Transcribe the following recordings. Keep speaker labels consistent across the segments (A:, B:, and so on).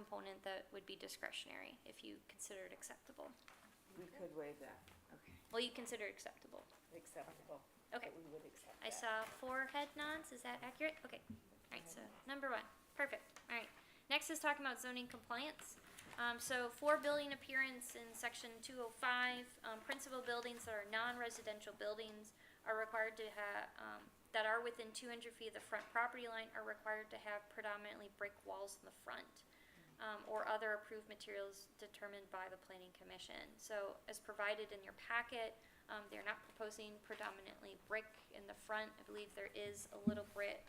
A: component that would be discretionary if you consider it acceptable.
B: We could waive that, okay.
A: Well, you consider it acceptable.
B: Acceptable.
A: Okay.
B: That we would accept
A: I
B: that.
A: saw four head nods, is that accurate? Okay, alright, so number one, perfect, alright. Next is talking about zoning compliance. Um, so for building appearance in section two oh five, um, principal buildings that are non-residential buildings are required to have, um, that are within two hundred feet of the front property line are required to have predominantly brick walls in the front um, or other approved materials determined by the planning commission. So as provided in your packet, um, they're not proposing predominantly brick in the front. I believe there is a little bit,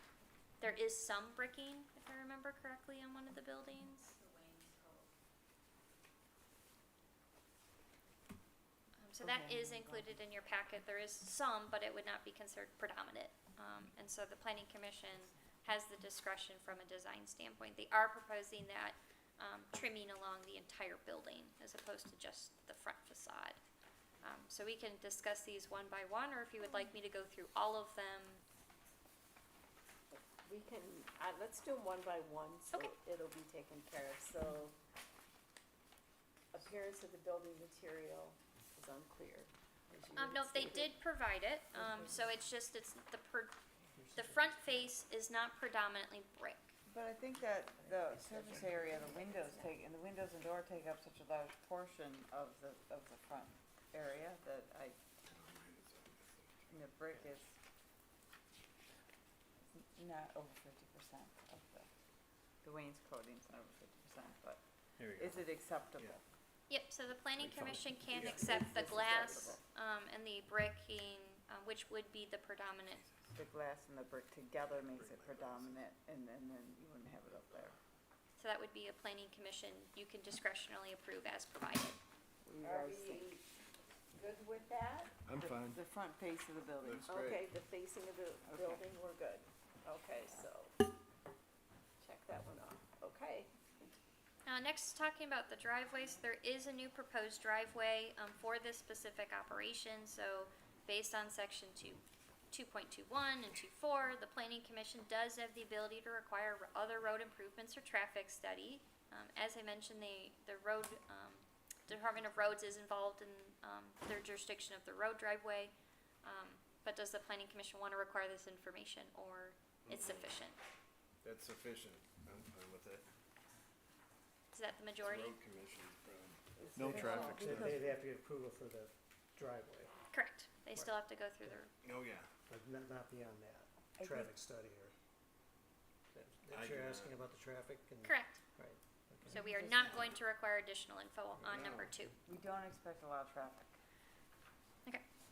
A: there is some bricking, if I remember correctly, on one of the buildings. Um, so that
B: Okay.
A: is included in your packet. There is some, but it would not be considered predominant. Um, and so the planning commission has the discretion from a design standpoint. They are proposing that um, trimming along the entire building as opposed to just the front facade. Um, so we can discuss these one by one, or if you would like me to go through all of them.
B: We can, uh, let's do them one by one, so
A: Okay.
B: it'll be taken care of, so. Appearance of the building material is unclear. as you
A: Um, no, they
B: stated.
A: did provide it, um, so it's just, it's the per, the front face is not predominantly brick.
C: But I think that the surface area, the windows take, and the windows and door take up such a large portion of the, of the front area that I, and the brick is n- not over fifty percent of the, the wainscoting's not over fifty percent, but
D: Here we
C: is it acceptable?
A: Yep, so the planning
D: Like
A: commission can
D: yeah.
A: accept the
B: This is
A: glass, um, and the bricking, uh, which would be the predominant.
C: The glass and the brick together makes it predominant, and then, then you wouldn't have it up there.
A: So that would be a planning commission, you can discretionally approve as provided.
C: We
B: Are
C: always think
B: we good with that?
D: I'm
C: the-
D: fine.
C: The front face of the building.
D: That's great.
B: Okay, the facing of the building, we're good. Okay, so. Check that one off, okay.
A: Uh, next, talking about the driveways, there is a new proposed driveway, um, for this specific operation, so based on section two, two point two one and two four, the planning commission does have the ability to require r- other road improvements or traffic study. Um, as I mentioned, the, the road, um, Department of Roads is involved in, um, their jurisdiction of the road driveway. Um, but does the planning commission wanna require this information or it's sufficient?
D: That's sufficient. I'm fine with it.
A: Is that the majority?
D: Road commission's problem. No traffic
E: They,
D: study.
E: they have to get approval for the driveway,
A: Correct, they still have to go through the
D: Oh, yeah.
E: but not, not beyond
B: I
E: that, traffic study or. that-
D: I
E: That
D: do
E: you're
D: not-
E: asking about the traffic and.
A: Correct,
E: Right, okay.
A: so we are not going to require additional info on number two.
C: We don't expect a lot of traffic.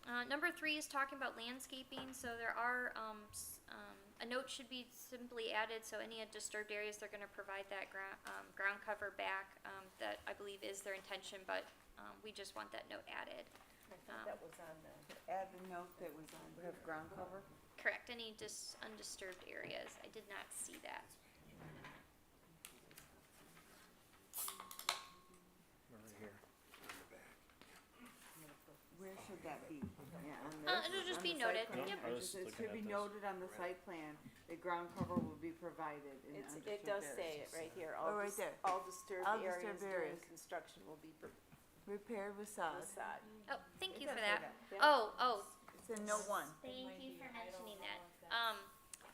A: Uh, number three is talking about landscaping, so there are, um, s- um, a note should be simply added, so any disturbed areas, they're gonna provide that ground, um, ground cover back, um, that I believe is their intention, but, um, we just want that note added. Um,
B: I thought that was on the.
C: Add the note that was on, we have ground cover.
A: Correct, any dis- undisturbed areas, I did not see that.
D: Right here.
C: Where should that be? Yeah, on
A: Uh,
C: this-
A: it'll just
C: on
A: be
C: the
A: noted.
C: site plan?
A: Yep.
C: Or
D: I was
C: just- It
D: looking
C: should
D: at
C: be
D: this.
C: noted on the site plan, the ground cover will be provided in
B: It's,
C: undisturbed
B: it does say
C: areas.
B: it right here,
C: Oh,
B: all
C: right
B: dis-
C: there.
B: all disturbed
C: All
B: areas
C: disturbed
B: during
C: areas. Uh,
B: construction will be per-
C: Repair facade.
B: facade.
A: Oh, thank
C: It
A: you
C: does
A: for
C: say
A: that.
B: Yeah.
A: Oh, oh,
C: It's in note one.
A: Thank you for mentioning that. Um,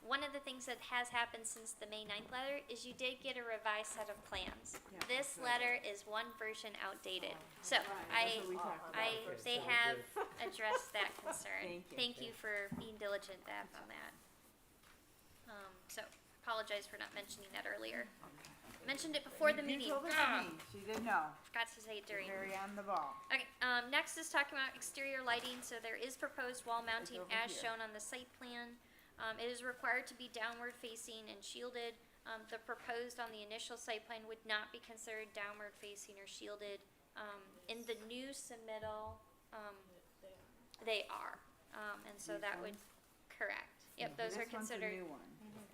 A: one of the things that has happened since the May 9th letter is you did get a revised set of plans.
C: Yeah,
A: This
C: that's right. Oh,
A: letter is one version outdated, so
C: That's
A: I,
C: what we talked
A: I,
C: about.
E: Okay,
A: they
E: so we
A: have
E: did.
A: addressed that concern.
C: Thank you.
A: Thank you for being diligent that, on that. Um, so, apologize for not mentioning that earlier. Mentioned it before the
C: You
A: meeting.
C: told her to
A: Ah,
C: me. She didn't know.
A: Forgot to say it during.
C: Very on the ball.
A: Okay, um, next is talking about exterior lighting, so there is proposed wall mounting
C: over
A: as
C: here.
A: shown on the site plan. Um, it is required to be downward facing and shielded. Um, the proposed on the initial site plan would not be considered downward facing or shielded. Um, in the new submittal, um, they are, um, and so
C: These
A: that would, correct. Yep, those are
C: This
A: considered,
C: one's a new one.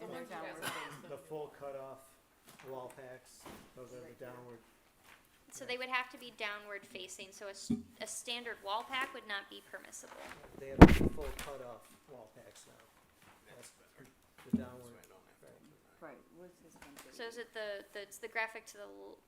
C: And they're downward facing.
E: The full cutoff wall packs, those are the downward,
A: so they would have to be downward facing, so a, s- a standard wall pack would not be permissible.
E: they have the full cutoff wall packs now. That's the downward, right.
C: Right, what's this one?
A: So is it the, the, it's the graphic to the l-